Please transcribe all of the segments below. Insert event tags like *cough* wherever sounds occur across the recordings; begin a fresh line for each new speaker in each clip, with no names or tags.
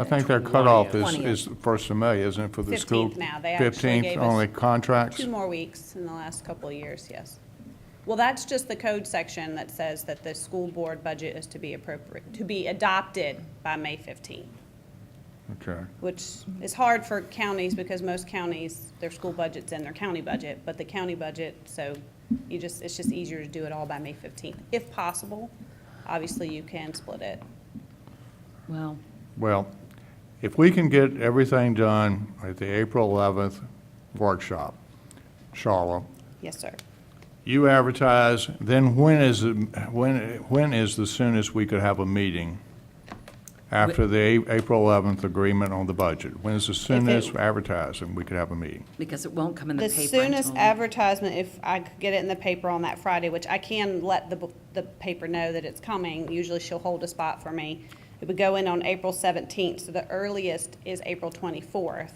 I think their
20th.
cutoff is,
20th.
is first of May, isn't it, for the school?
15th now. They actually gave us
Fifteenth, only contracts?
Two more weeks in the last couple of years, yes. Well, that's just the code section that says that the school board budget is to be appropriate, to be adopted by May 15th,
Okay.
which is hard for counties because most counties, their school budget's in their county budget, but the county budget, so you just, it's just easier to do it all by May 15th, if possible. Obviously, you can split it.
Well,
Well, if we can get everything done at the April 11th workshop, Charlotte,
Yes, sir.
you advertise, then when is, the- when, when is the soonest we could have a meeting? After the A- April 11th agreement on the budget? When is the soonest advertising we could have a meeting?
because it won't come in the
The
paper
soonest
until-
advertisement, if I could get it in the paper on that Friday, which I can let the, bu- the paper know that it's coming, usually she'll hold a spot for me. It would go in on April seventeenth, so the earliest is April twenty-fourth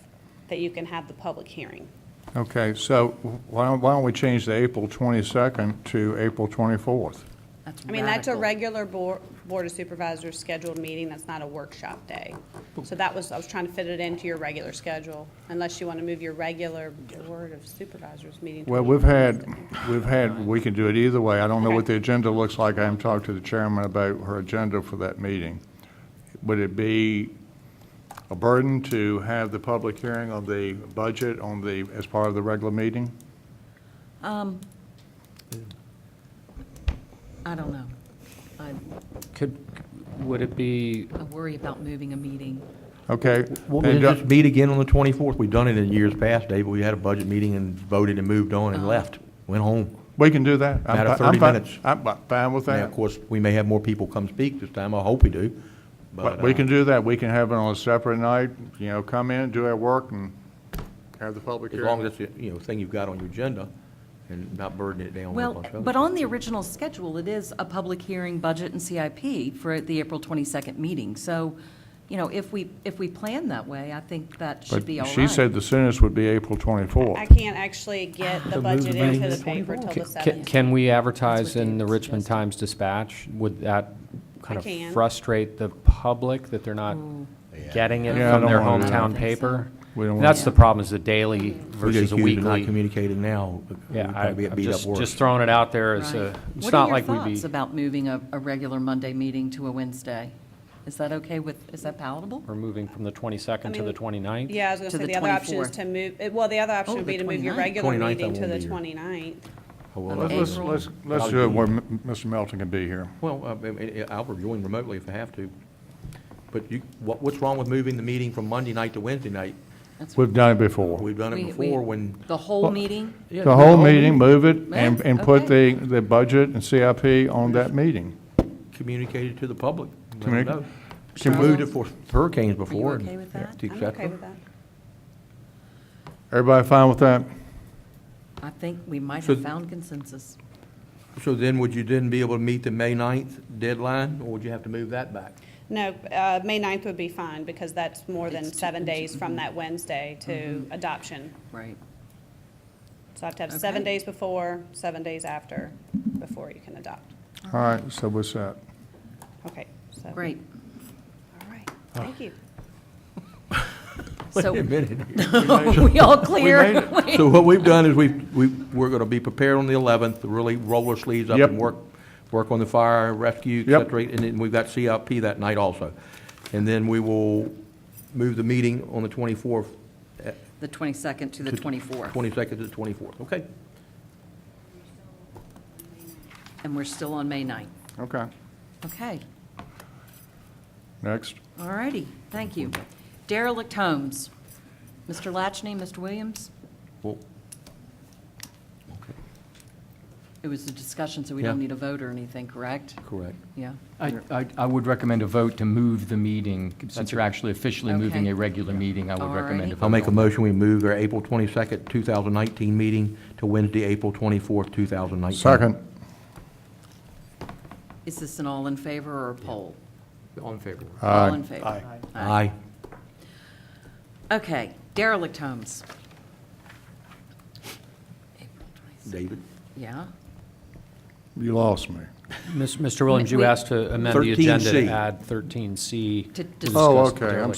that you can have the public hearing.
Okay, so why don't, why don't we change the April 22nd to April 24th?
That's
I mean, that's a
radical.
regular board, board of supervisors scheduled meeting, that's not a workshop day. So that was, I was trying to fit it into your regular schedule, unless you want to move your regular board of supervisors meeting. to
Well,
the-
we've had, we've had, we can do it either way. I don't know what
Okay.
the agenda looks like. I haven't talked to the chairman about her agenda for that meeting. Would it be a burden to have the public hearing on the budget on the, as part of the regular meeting?
Um, I don't know. I,
Could, would it be,
I worry about moving a meeting.
Okay.
What
then
we
do-
just meet again on the 24th. We've done it in years past, Dave. We had a budget meeting and voted and moved on
Uh-huh.
and left, went home.
We can do that. I'm
Matter of
fi- I'm
30
fine-
minutes.
I'm fi- fine with
Now, of
that.
course, we may have more people come speak this time. I hope we do.
But
But
we
uh,
can do that. We can have it on a separate night, you know, come in, do our work, and have the public
as
hearing.
long as it's, the, you know, thing you've got on your agenda and not burden it down with a
Well,
bunch of other
but on the original schedule, it is a public hearing, budget, and CIP for the April 22nd meeting. So, you know, if we, if we plan that way, I think that should
But
be all right.
she said the soonest would be April 24th.
I can't actually get the budget into the paper till the
ca-
seventh.
ca- can we advertise
they
in the
were
Richmond
suggesting.
Times Dispatch? Would that kind
I can.
of frustrate the public that they're not getting it
Yeah, I
from
don't
their
wanna do that.
hometown paper?
We don't
That's
wanna-
the problem, is the daily
We get
versus the
accused of Not
weekly.
communicating now. We
Yeah, I-
probably get
I'm
beat up
just,
worse.
just throwing it out there as
Right.
a, it's
What are
not
your
like we'd
thoughts
be,
about moving a, a regular Monday meeting to a Wednesday? Is that okay with, is that palatable?
we're moving from the
I
22nd to
mean,
the 29th?
Yeah, I was gonna
To
say,
the
the other option is to
24th.
move, eh, well, the other option
Oh,
would be
the
to move your
29th.
regular
29th, I
meeting to
won't
the
be here.
29th.
Oh, well,
Of
I-
Let's,
April.
let's, let's do it where M- Mr. Melton can be here.
Well, uh, I- I- I'll rejoin remotely if I have to. But you, what, what's wrong with moving the meeting from Monday night to Wednesday night?
That's-
We've done it before.
We've done
we-
it
we-
before when.
The whole meeting?
Yeah,
The whole meeting, move it and,
Yeah,
and put the,
okay.
the budget and CIP on that meeting.
Communicated to the public. let them
Communi-
know. We
Can we-
moved it for hurricanes before. and
okay with that?
to
I'm
accept
okay
them.
with that.
Everybody fine with that?
I think we might
So-
have found consensus.
So then would you then be able to meet the May 9th deadline, or would you have to move that back?
No, uh, May 9th would be fine, because that's more than
It's Mm-hmm. two-
seven
it's-
days from that Wednesday to adoption.
Right.
So I have to have seven
Okay.
days before, seven days after, before you can adopt.
All right, so what's that?
Okay, so.
Great.
All right, thank you.
So,
Wait
*laughs*
a minute.
we all clear?
*laughs* So what we've done is we've, we, we're gonna be prepared on the 11th, to really roll our sleeves up
Yep.
and work, work on the fire, rescue, et
Yep.
cetera, and then we've got CIP that night also. And then we will move the meeting on the 24th, eh,
The 22nd to the 24th.
22nd to the 24th, okay?
And we're still on May 9th.
Okay,
Okay,
next.
all righty, thank you. Derelict homes. Mr. Latchney, Mr. Williams?
Well,
It was a discussion, so we don't
Yeah.
need a vote or anything, correct?
correct.
Yeah.
I, I- I would recommend a vote to move the meeting, since you're actually officially moving
Okay.
a regular meeting, I would recommend a
Alrighty.
vote.
I'll make a
on-
motion, we move our April 22nd, 2019 meeting to Wednesday, April 24th, 2019.
Second,
Is this an all in favor or a poll?
All in favor?
All in favor.
Aye.
Okay, derelict homes. April 26th.
David?
Yeah,
you lost me.
Mis- Mr. Williams, you
We-
asked to amend the agenda
13C.
to add 13C.
To
to
dis-
Oh,
discuss
okay, I'm
derelict